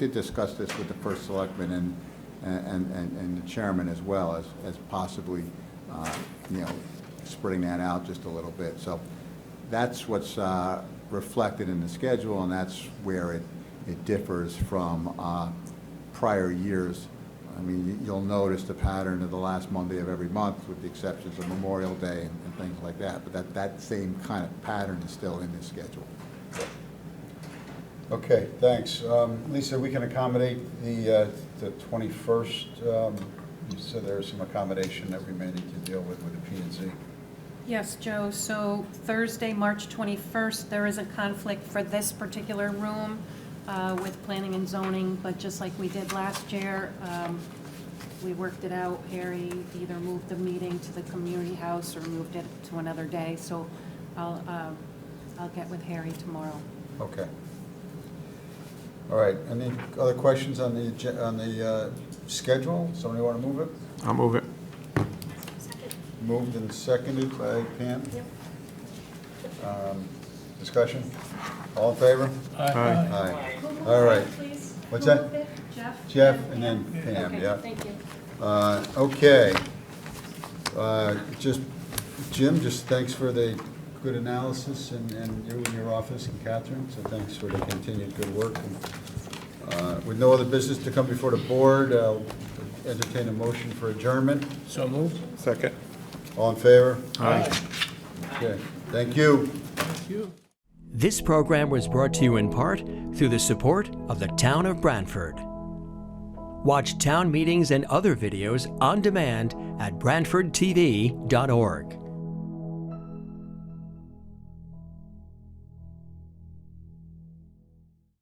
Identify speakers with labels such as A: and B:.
A: did discuss this with the first selectman and, and, and and the chairman as well as, as possibly, uh, you know, spreading that out just a little bit. So that's what's uh, reflected in the schedule, and that's where it, it differs from uh, prior years. I mean, you- you'll notice the pattern of the last Monday of every month, with the exceptions of Memorial Day and and things like that, but that, that same kind of pattern is still in the schedule.
B: Okay, thanks. Um, Lisa, we can accommodate the, uh, the 21st, um, so there's some accommodation that we may need to deal with with the P and Z.
C: Yes, Joe, so Thursday, March 21st, there is a conflict for this particular room uh, with planning and zoning, but just like we did last year, um, we worked it out. Harry either moved the meeting to the community house or moved it to another day, so I'll, um, I'll get with Harry tomorrow.
B: Okay. All right, any other questions on the, agen- on the uh, schedule? Somebody want to move it?
D: I'll move it.
B: Moved and seconded by Pam? Um, Discussion? All in favor?
D: Aye.
B: Aye. All right. What's that?
C: Jeff?
B: Jeff and then Pam,
C: Okay,
B: yeah?
C: Thank you.
B: Uh, Okay. Uh, Just, Jim, just thanks for the good analysis and, and you and your office and Catherine, so thanks for the continued good work. Uh, With no other business to come before the board, I'll entertain a motion for adjournment.
E: So moved.
D: Second.
B: All in favor?
D: Aye.
B: Okay, thank you.
E: Thank you.
F: This program was brought to you in part through the support of the Town of Brantford. Watch town meetings and other videos on demand at BrantfordTV.org.